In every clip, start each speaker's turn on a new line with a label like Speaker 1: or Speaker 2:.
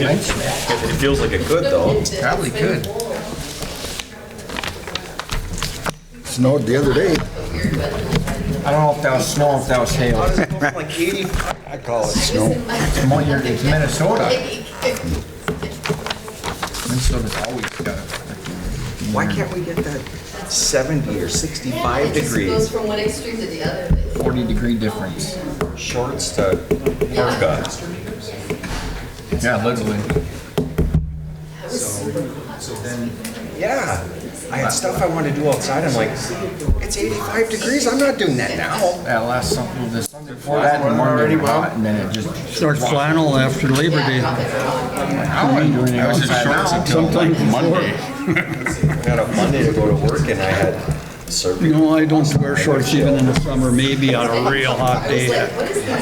Speaker 1: It feels like it could though.
Speaker 2: Probably could.
Speaker 3: Snowed the other day.
Speaker 2: I don't know if that was snow, if that was hail.
Speaker 1: Like 80.
Speaker 3: I call it snow.
Speaker 2: It's Mo- you're- it's Minnesota. Minnesota's always got it.
Speaker 1: Why can't we get that 70 or 65
Speaker 4: It goes
Speaker 1: degrees
Speaker 4: from one extreme to the other.
Speaker 2: Forty degree difference.
Speaker 1: shorts to haircuts?
Speaker 2: Yeah, literally.
Speaker 1: Yeah, I had stuff I wanted to do outside. I'm like, it's 85 degrees. I'm not doing that now.
Speaker 2: That last something, this, before that, in the morning, hot, and then it just.
Speaker 5: Start flannel after Labor Day.
Speaker 2: I wouldn't do anything
Speaker 6: I was in
Speaker 2: outside
Speaker 6: shorts
Speaker 2: now.
Speaker 6: until like Monday.
Speaker 1: I got a Monday to go to work and I had surgery.
Speaker 5: You know, I don't wear shorts even in the summer, maybe on a real hot day,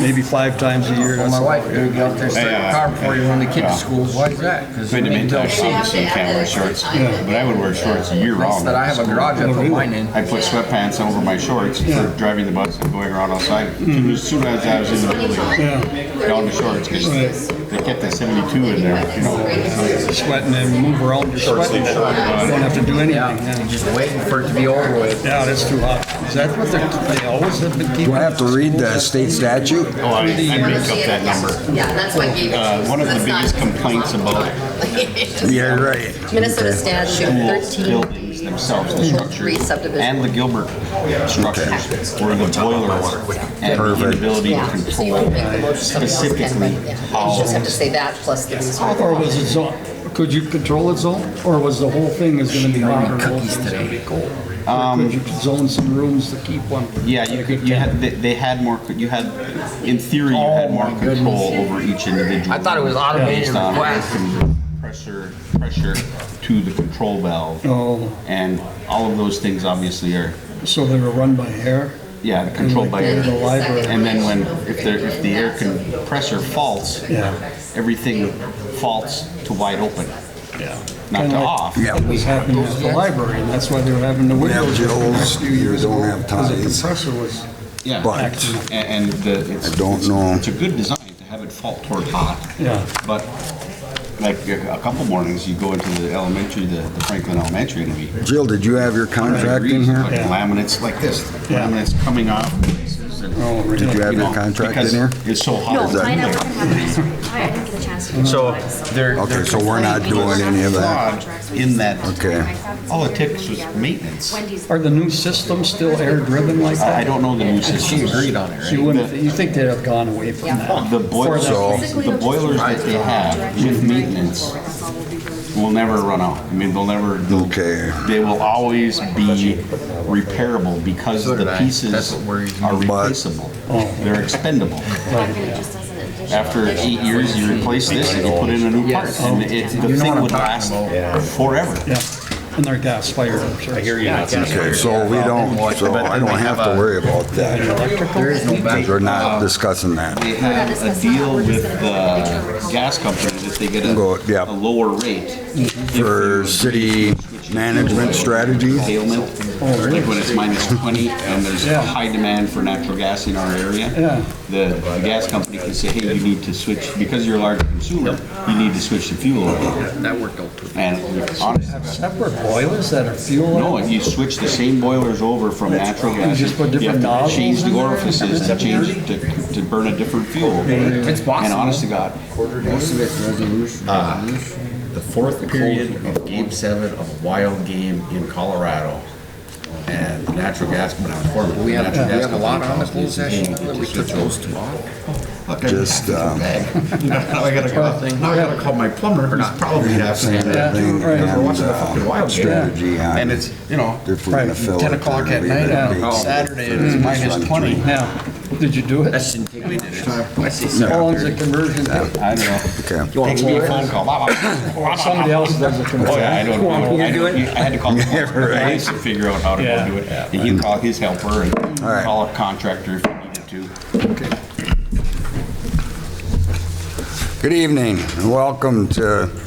Speaker 5: maybe five times a year.
Speaker 2: Well, my wife, dude, get out there, start the
Speaker 6: Yeah.
Speaker 2: car before you run the kids
Speaker 6: Yeah.
Speaker 2: to school. Why is that? Because
Speaker 6: Wait a minute, I
Speaker 2: those
Speaker 6: see this you can't wear shorts, but I would wear shorts year round.
Speaker 2: that I have a garage, I put mine in.
Speaker 6: I put sweatpants over my shorts for driving the bus and going around outside. As soon as I was in the building,
Speaker 5: Yeah,
Speaker 6: down to shorts, because they kept that seventy-two in there, you know.
Speaker 5: sweating and move around, you're sweating. You don't have to do anything.
Speaker 2: Yeah,
Speaker 5: yeah.
Speaker 2: just waiting for it to be over with.
Speaker 5: Yeah, that's too hot. Is that what they're, they always have been keeping?
Speaker 3: Do I have to read the state statute?
Speaker 6: Oh, I, I make up that number.
Speaker 4: Yeah, that's why I gave it to you.
Speaker 6: Uh, one of the
Speaker 4: That's not-
Speaker 6: biggest complaints about
Speaker 3: Yeah, right.
Speaker 4: Minnesota statute
Speaker 6: schools,
Speaker 4: 13.
Speaker 6: buildings themselves, the
Speaker 4: Three
Speaker 6: structures,
Speaker 4: subdivision.
Speaker 6: and the Gilbert structures were the boiler water and the
Speaker 3: Perfect.
Speaker 6: inability to
Speaker 4: Yeah, so you
Speaker 6: control
Speaker 4: can make the motion, somebody else can
Speaker 6: specifically
Speaker 4: write it. down. You
Speaker 6: how
Speaker 4: just have to say that plus the reason.
Speaker 5: Or was it zone, could you control it zone, or was the whole thing is gonna be hot or the whole thing's gonna be cold? Or Could you zone some rooms to keep one?
Speaker 6: Um, Yeah, you could, you had, they- they had more, co- you had, in theory, you
Speaker 2: Oh,
Speaker 6: had more
Speaker 2: my
Speaker 6: control over each individual.
Speaker 2: I thought it was automated
Speaker 6: based on
Speaker 2: request.
Speaker 6: Pressure, pressure to the control valve,
Speaker 5: Oh,
Speaker 6: and all of those things obviously are,
Speaker 5: so they were run by air?
Speaker 6: yeah, controlled by
Speaker 5: In the
Speaker 6: air.
Speaker 5: library.
Speaker 6: And then when, if there, if the air compressor faults,
Speaker 5: Yeah.
Speaker 6: everything faults to wide open,
Speaker 5: Yeah.
Speaker 6: not to off.
Speaker 3: Yeah.
Speaker 5: It was happening at the library, and that's why they were having the
Speaker 3: have
Speaker 5: windows open the
Speaker 3: Joe's,
Speaker 5: last few years
Speaker 3: we
Speaker 5: ago.
Speaker 3: don't have
Speaker 5: because the
Speaker 3: ties.
Speaker 5: compressor was,
Speaker 6: Yeah.
Speaker 3: But
Speaker 6: A- And the, it's.
Speaker 3: I don't know.
Speaker 6: It's a good design to have it fault toward hot.
Speaker 5: yeah,
Speaker 6: But like a a couple mornings, you go into the elementary, the the Franklin Elementary, and it'll be
Speaker 3: Jill, did you have your contract in
Speaker 6: degrees,
Speaker 3: here?
Speaker 6: like
Speaker 5: Yeah.
Speaker 6: laminates like this,
Speaker 5: Yeah.
Speaker 6: laminates coming off places and.
Speaker 5: Oh, really? Did
Speaker 3: you have your
Speaker 6: know,
Speaker 3: contract in
Speaker 6: because
Speaker 3: here?
Speaker 6: It's so
Speaker 7: No,
Speaker 6: hot.
Speaker 3: Is that-
Speaker 7: mine, I work in Havertz. I I didn't get a chance to.
Speaker 1: So there,
Speaker 3: Okay, so we're not doing any of that.
Speaker 6: In that-
Speaker 3: Okay.
Speaker 6: All it takes was maintenance.
Speaker 7: Wendy's.
Speaker 5: are the new systems still air-driven like
Speaker 6: I
Speaker 5: that?
Speaker 6: don't know the new system.
Speaker 5: She wouldn't, you think they'd have gone away from that?
Speaker 6: The boilers,
Speaker 3: So-
Speaker 6: the boilers that they have with maintenance will never run out. I mean, they'll never, they'll-
Speaker 3: Okay.
Speaker 6: they will always be repairable because
Speaker 2: So did
Speaker 6: the
Speaker 2: I. That's
Speaker 6: pieces
Speaker 2: what worries me.
Speaker 6: are
Speaker 3: But-
Speaker 6: replaceable. They're expendable. After eight years, you replace this and you put in a new part. And it,
Speaker 2: You know
Speaker 6: the
Speaker 2: what
Speaker 6: thing
Speaker 2: I'm
Speaker 6: would last
Speaker 2: talking
Speaker 6: forever.
Speaker 5: Yeah, and they're gas-fired, I'm sure.
Speaker 6: you.
Speaker 3: Okay, so we don't, so I don't have to worry about that.
Speaker 2: There is no back.
Speaker 3: Because we're not discussing that.
Speaker 6: They have a deal with the gas company that they get a,
Speaker 3: Go, yeah.
Speaker 6: a lower rate.
Speaker 3: For city management strategy,
Speaker 6: curtailment,
Speaker 2: Oh,
Speaker 6: like when it's minus 20 and there's a high demand for natural gas in our area,
Speaker 5: Yeah.
Speaker 6: the the gas company can say, hey, you need to switch, because you're a large consumer, you need to switch to fuel oil.
Speaker 2: That worked out perfect.
Speaker 6: And honestly,
Speaker 5: Separate boilers that are fuel?
Speaker 6: no, if you switch the same boilers over from natural gas,
Speaker 5: just put
Speaker 6: you have
Speaker 5: different
Speaker 6: to
Speaker 5: nozzles
Speaker 6: change
Speaker 5: in
Speaker 6: the
Speaker 5: there?
Speaker 6: orifices and change it to, to burn a different fuel.
Speaker 2: It's
Speaker 6: And
Speaker 2: possible.
Speaker 6: honest to God,
Speaker 2: Most of it's resolution.
Speaker 8: the fourth period of Game Seven of a wild game in Colorado, and the natural gas went on for it.
Speaker 2: We have, we
Speaker 8: Natural gas
Speaker 2: have a lot
Speaker 8: company
Speaker 2: on
Speaker 8: calls me
Speaker 2: the closed
Speaker 8: and says,
Speaker 2: session,
Speaker 8: "Hey, you
Speaker 2: that
Speaker 8: need
Speaker 2: we
Speaker 8: to
Speaker 2: took
Speaker 8: switch over
Speaker 2: those
Speaker 8: to
Speaker 2: two off.
Speaker 8: Look, I-
Speaker 3: Just, um,
Speaker 8: Now I gotta call, now I gotta call my plumber, who's probably half saying
Speaker 3: Yeah,
Speaker 8: that.
Speaker 5: right.
Speaker 8: We're watching the fucking wild game.
Speaker 3: uh, strategy on
Speaker 8: And it's, you know,
Speaker 3: if we're gonna fill it.
Speaker 8: ten o'clock at night on Saturday, and it's minus twenty.
Speaker 5: Yeah, did you do it?
Speaker 8: That's intimidating. I see
Speaker 5: How long's the conversion take?
Speaker 6: I don't know.
Speaker 3: Okay.
Speaker 6: Takes me a phone call. Blah, blah, blah, blah,
Speaker 5: Somebody
Speaker 6: blah.
Speaker 5: else does the
Speaker 6: Oh,
Speaker 5: conversion.
Speaker 6: yeah, I don't know. I don't- I had to call the
Speaker 3: Yeah, right.
Speaker 6: police to figure out how to
Speaker 5: Yeah.
Speaker 6: go do it. And he'd call his helper and
Speaker 3: right.
Speaker 6: call a contractor if he needed to.
Speaker 3: Good evening and welcome to